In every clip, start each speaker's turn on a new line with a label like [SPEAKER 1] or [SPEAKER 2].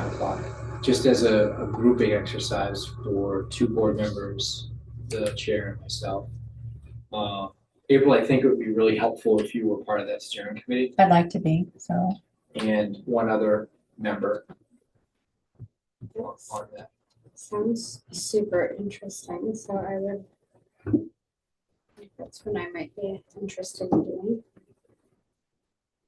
[SPEAKER 1] five o'clock, just as a, a grouping exercise for two board members, the chair and myself. Uh, April, I think it would be really helpful if you were part of that steering committee
[SPEAKER 2] I'd like to be, so.
[SPEAKER 1] and one other member. on on that.
[SPEAKER 3] Sounds super interesting, so I would. That's when I might be interested in doing.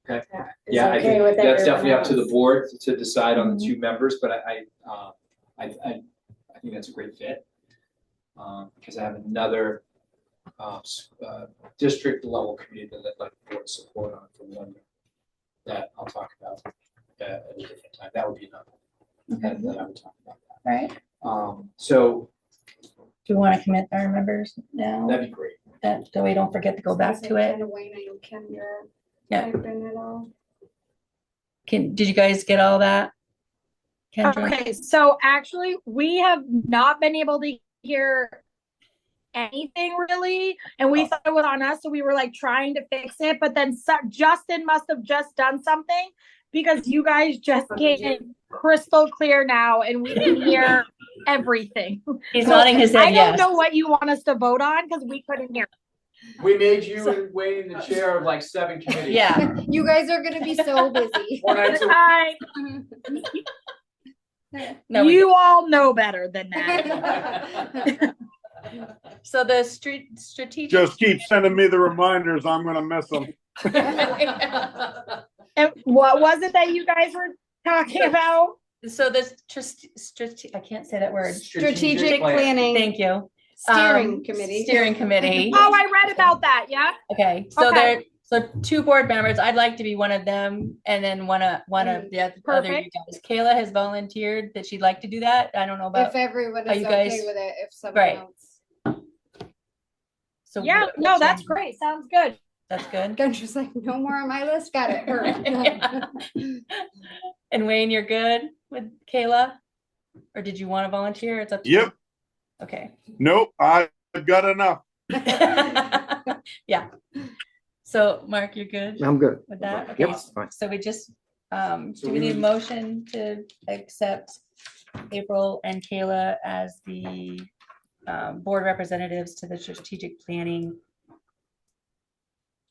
[SPEAKER 1] Okay.
[SPEAKER 3] Is that- is
[SPEAKER 1] Yeah, I
[SPEAKER 3] okay with
[SPEAKER 1] think that's definitely
[SPEAKER 3] everyone
[SPEAKER 1] up to the
[SPEAKER 3] else? Mm-hmm.
[SPEAKER 1] board to decide on the two members, but I, I, uh, I, I, I think that's a great fit. Um, because I have another, uh, s- uh, district level committee that I'd like board support on from London. That I'll talk about, uh, at a different time, that would be another, that, that I would talk about.
[SPEAKER 2] Right,
[SPEAKER 1] Um, so
[SPEAKER 2] do we want to commit our members now,
[SPEAKER 1] that'd be great,
[SPEAKER 2] that, so we don't forget to go back to it?
[SPEAKER 3] Kind of Wayne, I know Kendra.
[SPEAKER 2] Yeah.
[SPEAKER 3] type in it all.
[SPEAKER 2] Can, did you guys get all that? Kendra,
[SPEAKER 4] Okay, so actually, we have not been able to hear anything really, and
[SPEAKER 2] Oh.
[SPEAKER 4] we thought it was on us, so we were like trying to fix it, but then so- Justin must have just done something because you guys just gave it crystal clear now, and we can hear everything.
[SPEAKER 2] he's nodding his
[SPEAKER 4] I
[SPEAKER 2] head
[SPEAKER 4] don't
[SPEAKER 2] yes.
[SPEAKER 4] know what you want us to vote on because we couldn't hear.
[SPEAKER 1] we made you and Wayne the chair of like seven committees.
[SPEAKER 2] Yeah.
[SPEAKER 3] You guys are gonna be so busy.
[SPEAKER 1] One night a
[SPEAKER 4] I-
[SPEAKER 2] No, we-
[SPEAKER 4] You all know better than that.
[SPEAKER 2] so the street, strategic.
[SPEAKER 5] Just keep sending me the reminders. I'm gonna miss them.
[SPEAKER 4] And what was it that you guys were talking about?
[SPEAKER 2] So this, just, strate- I can't say that word.
[SPEAKER 3] Strategic
[SPEAKER 1] plan.
[SPEAKER 3] planning,
[SPEAKER 2] Thank you. Um,
[SPEAKER 3] steering committee.
[SPEAKER 2] Steering committee.
[SPEAKER 4] Oh, I read about that. Yeah.
[SPEAKER 2] Okay, so
[SPEAKER 4] Okay.
[SPEAKER 2] there, so two board members, I'd like to be one of them and then one of, one of
[SPEAKER 3] Mm,
[SPEAKER 2] the oth- other you guys. Kayla has volunteered that she'd like to do that. I don't know
[SPEAKER 3] If
[SPEAKER 2] about,
[SPEAKER 3] everyone
[SPEAKER 2] Are
[SPEAKER 3] is
[SPEAKER 2] you
[SPEAKER 3] okay
[SPEAKER 2] guys-
[SPEAKER 3] with it, if someone
[SPEAKER 2] Right.
[SPEAKER 3] else.
[SPEAKER 2] so.
[SPEAKER 4] Yeah.
[SPEAKER 2] what-
[SPEAKER 4] No,
[SPEAKER 2] what's
[SPEAKER 4] that's
[SPEAKER 2] on-
[SPEAKER 4] great. Sounds good.
[SPEAKER 2] That's good.
[SPEAKER 3] Kendra's like, no more on my list, got it.
[SPEAKER 2] Yeah. And Wayne, you're good with Kayla? Or did you want to volunteer? It's up to you.
[SPEAKER 5] Yep,
[SPEAKER 2] Okay.
[SPEAKER 5] nope, I've got enough.
[SPEAKER 2] Yeah. So Mark, you're good
[SPEAKER 6] I'm good.
[SPEAKER 2] with that? Okay.
[SPEAKER 6] Yep, it's fine.
[SPEAKER 2] So we just, um,
[SPEAKER 1] So
[SPEAKER 2] do
[SPEAKER 1] we
[SPEAKER 2] we need a
[SPEAKER 1] need-
[SPEAKER 2] motion to accept April and Kayla as the um, board representatives to the strategic planning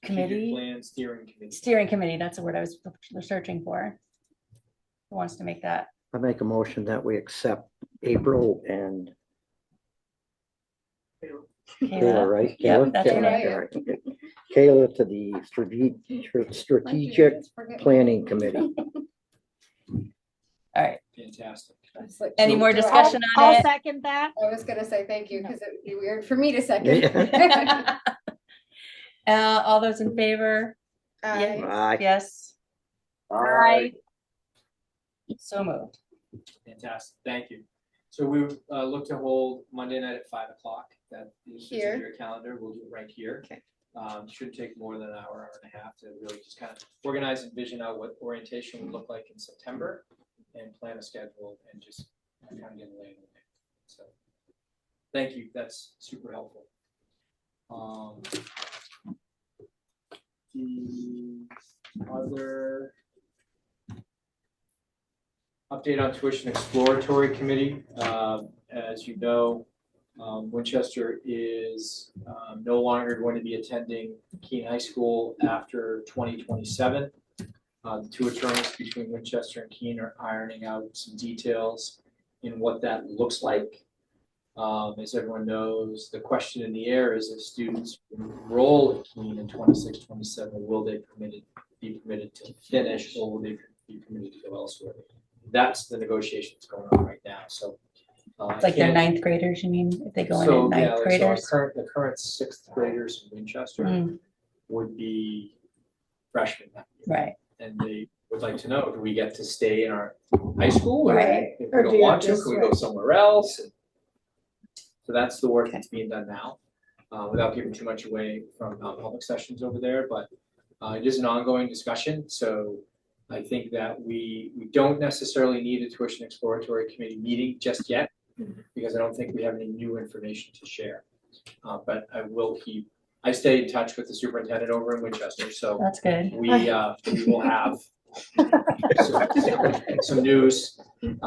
[SPEAKER 1] Strategic
[SPEAKER 2] committee,
[SPEAKER 1] Plan steering committee.
[SPEAKER 2] steering committee, that's the word I was searching for. Who wants to make that?
[SPEAKER 6] I make a motion that we accept April and Kayla,
[SPEAKER 2] Kayla?
[SPEAKER 6] right?
[SPEAKER 2] Yeah,
[SPEAKER 6] Kayla?
[SPEAKER 2] that's
[SPEAKER 6] Kayla,
[SPEAKER 3] right.
[SPEAKER 6] okay, right. Kayla to the strate- tr- strategic planning committee.
[SPEAKER 2] All right,
[SPEAKER 1] Fantastic.
[SPEAKER 2] any more
[SPEAKER 3] Do I-
[SPEAKER 2] discussion on
[SPEAKER 4] I'll
[SPEAKER 2] it?
[SPEAKER 4] second that.
[SPEAKER 3] I was gonna say thank you, because it would be weird for me to second.
[SPEAKER 6] Yeah.
[SPEAKER 2] Uh, all those in favor?
[SPEAKER 3] I-
[SPEAKER 6] Aye.
[SPEAKER 2] Yes,
[SPEAKER 4] Aye.
[SPEAKER 2] so moved.
[SPEAKER 1] Fantastic, thank you. So we uh look to hold Monday night at five o'clock, that is in
[SPEAKER 3] Here.
[SPEAKER 1] your calendar, we'll do it right here.
[SPEAKER 3] Okay.
[SPEAKER 1] Um, should take more than an hour, hour and a half to really just kind of organize and vision out what orientation would look like in September and plan a schedule and just kind of get laid in the way. So, thank you, that's super helpful. Um. The other update on tuition exploratory committee. Um, As you know, um, Winchester is um, no longer going to be attending Keene High School after 2027. Uh, The two attorneys between Winchester and Keene are ironing out some details in what that looks like. Um, As everyone knows, the question in the air is if students enroll at Keene in 26, 27, will they permitted, be permitted to finish or will they be permitted to go elsewhere? that's the negotiation that's going on right now, so. uh, I
[SPEAKER 2] It's like
[SPEAKER 1] can't-
[SPEAKER 2] they're ninth graders, you mean, if they go in
[SPEAKER 1] So,
[SPEAKER 2] at
[SPEAKER 1] yeah, like, so
[SPEAKER 2] ninth
[SPEAKER 1] our
[SPEAKER 2] graders?
[SPEAKER 1] Current, the current sixth graders in Winchester
[SPEAKER 2] Mm,
[SPEAKER 1] would be freshmen. that year.
[SPEAKER 2] Hmm, Right,
[SPEAKER 1] And they would like to know, do we get to stay in our high school? or
[SPEAKER 3] Right.
[SPEAKER 1] If we
[SPEAKER 3] Or do
[SPEAKER 1] don't
[SPEAKER 3] you
[SPEAKER 1] want to,
[SPEAKER 3] just
[SPEAKER 1] can we go
[SPEAKER 3] switch?
[SPEAKER 1] somewhere else? And So that's the work that's being done now, uh, without giving too much away from uh, public sessions over there, but uh, it is an ongoing discussion, so I think that we, we don't necessarily need a tuition exploratory committee meeting just yet,
[SPEAKER 3] Mm-hmm.
[SPEAKER 1] because I don't think we have any new information to share. Uh, but I will keep, I stay in touch with the superintendent over in Winchester, so
[SPEAKER 2] that's good.
[SPEAKER 1] we, uh, we will have some- some news